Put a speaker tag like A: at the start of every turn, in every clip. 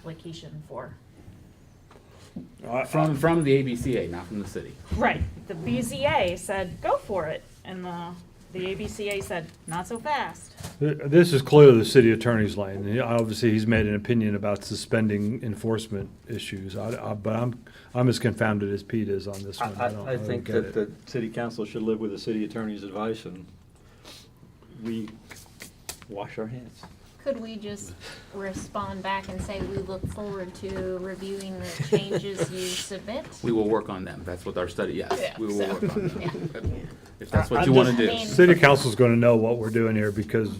A: application for.
B: I-
C: From, from the ABCA, not from the city.
A: Right, the BZA said, go for it, and the, the ABCA said, not so fast.
B: Th- This is clearly the city attorney's lane. He- Obviously, he's made an opinion about suspending enforcement issues, I- I- but I'm, I'm as confounded as Pete is on this
D: I,
B: one. I don't-
D: I- I
B: don't
D: think
B: get
D: that
B: it.
D: the city council should live with the city attorney's advice and we wash our hands.
E: Could we just respond back and say we look forward to reviewing the changes you submit?
C: We will work on them. That's what our study, yes,
E: Yeah,
C: we will
E: so-
C: work on
E: yeah.
C: them. If that's
F: I-
C: what
F: I'm
C: you want to
E: just- I
C: do.
E: mean-
B: City council's going to know what we're doing here because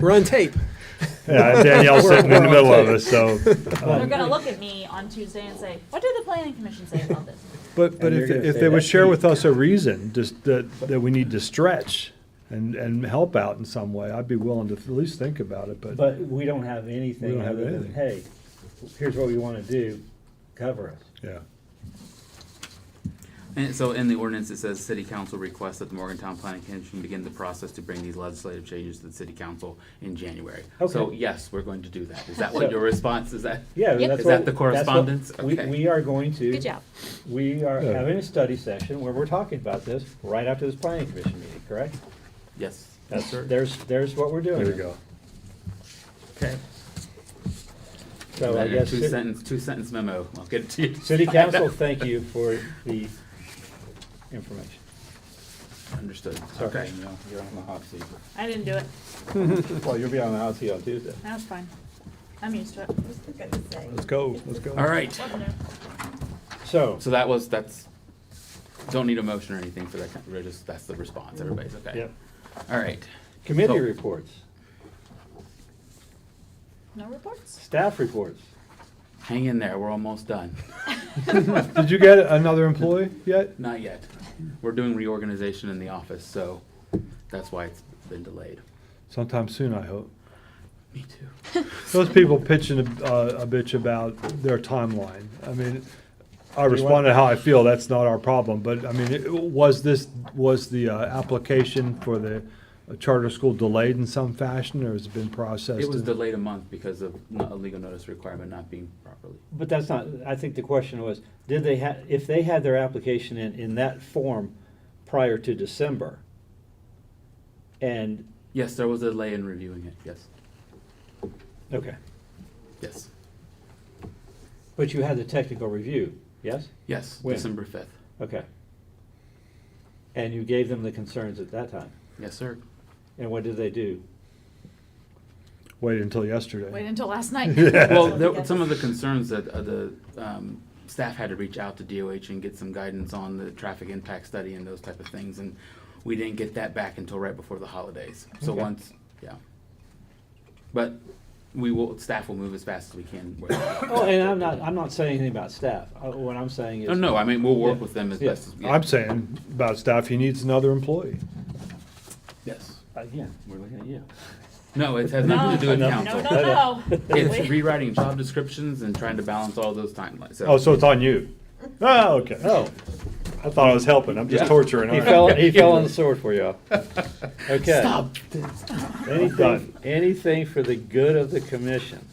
F: We're on tape.
B: yeah, Danielle's sitting in the middle of us, so.
A: They're gonna look at me on Tuesday and say, what did the planning commission say about this?
B: But, but
D: And
B: if,
D: you're gonna
B: if
D: say
B: they would
D: that's
B: share
D: me.
B: with us a reason, just that, that we need to stretch and, and help out in some way, I'd be willing to at least think about it, but
G: But we don't have
B: We
G: anything
B: don't have
G: other than,
B: anything.
G: hey, here's what we wanna do, cover us.
B: yeah.
C: And so in the ordinance, it says, "City Council requests that the Morgantown Planning Commission begin the process to bring these legislative changes to the City Council in January." So
G: Okay.
C: yes, we're going to do that. Is that
G: So-
C: what your response is? That
G: Yeah,
E: Yep.
G: that's
C: Is that the
G: what- that's what-
C: correspondence?
G: We,
C: Okay.
G: we are going to.
A: Good job.
G: We are
B: Yeah.
G: having a study session where we're talking about this right after this planning commission meeting, correct?
C: yes.
G: That's, there's, there's what we're doing.
B: There you go.
C: Okay.
G: So I guess,
C: two
G: ci-
C: sentence, two sentence memo. I'll get it to you.
G: city council, thank you for the information.
C: Understood.
G: Sorry,
C: Okay.
D: Danielle, You're on the hot seat.
A: I didn't do it,
D: Well, you'll be on the hot seat on Tuesday.
A: that was fine, I'm used to it.
B: Let's go, let's go.
C: All right.
G: So,
C: So that was, that's, don't need a motion or anything for that. kind- We're just, that's the response. Everybody's okay.
G: Yep.
C: All right.
G: committee
C: So-
G: reports,
A: No reports?
G: staff reports.
C: Hang in there. We're almost done.
B: Did you get another employee yet?
C: Not yet. We're doing reorganization in the office, so that's why it's been delayed.
B: Sometime soon, I hope.
C: Me too.
B: Those people pitching a, uh, a bitch about their timeline. I mean, I responded how I feel. That's not our problem. But I mean, it- was this, was the uh, application for the uh, charter school delayed in some fashion or has it been processed?
C: It was
B: in-
C: delayed a month because of no- a legal notice requirement not being properly.
G: But that's not, I think the question was, did they ha, if they had their application in, in that form prior to December, and,
C: Yes, there was a delay in reviewing it. Yes,
G: okay,
C: yes,
G: but you had the technical review, yes?
C: yes,
G: When?
C: December fifth.
G: Okay. And you gave them the concerns at that time,
C: Yes, sir.
G: and what did they do?
B: Waited until yesterday.
A: Wait until last night.
C: Well, there, some of the concerns that uh, the um, staff had to reach out to DOH and get some guidance on the traffic impact study and those type of things, and we didn't get that back until right before the holidays. So
G: Okay.
C: once, yeah. But we will, staff will move as fast as we can. where-
G: Oh, and I'm not, I'm not saying anything about staff, Uh, what I'm saying is.
C: Oh, No, no, I mean, we'll work
G: Yeah.
C: with them as
G: Yeah.
C: best as we can.
B: I'm saying about staff, he needs another employee.
C: Yes.
G: Again, we're looking at you.
C: No, it has nothing to do with
A: No,
C: council.
A: No, no, no.
C: It's rewriting job descriptions and trying to balance all those timelines.
B: Oh, so it's on you? Oh, okay.
G: Oh,
B: I thought I was helping. I'm just
C: Yeah.
B: torturing.
G: he
B: aren't I?
G: fell, he fell on the sword for you. Okay.
C: Stop.
B: Done.
G: Anything, anything for the good of the commission.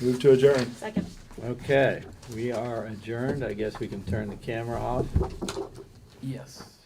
B: Move to adjourn.
A: Second.
G: Okay, we are adjourned. I guess we can turn the camera off.
C: Yes.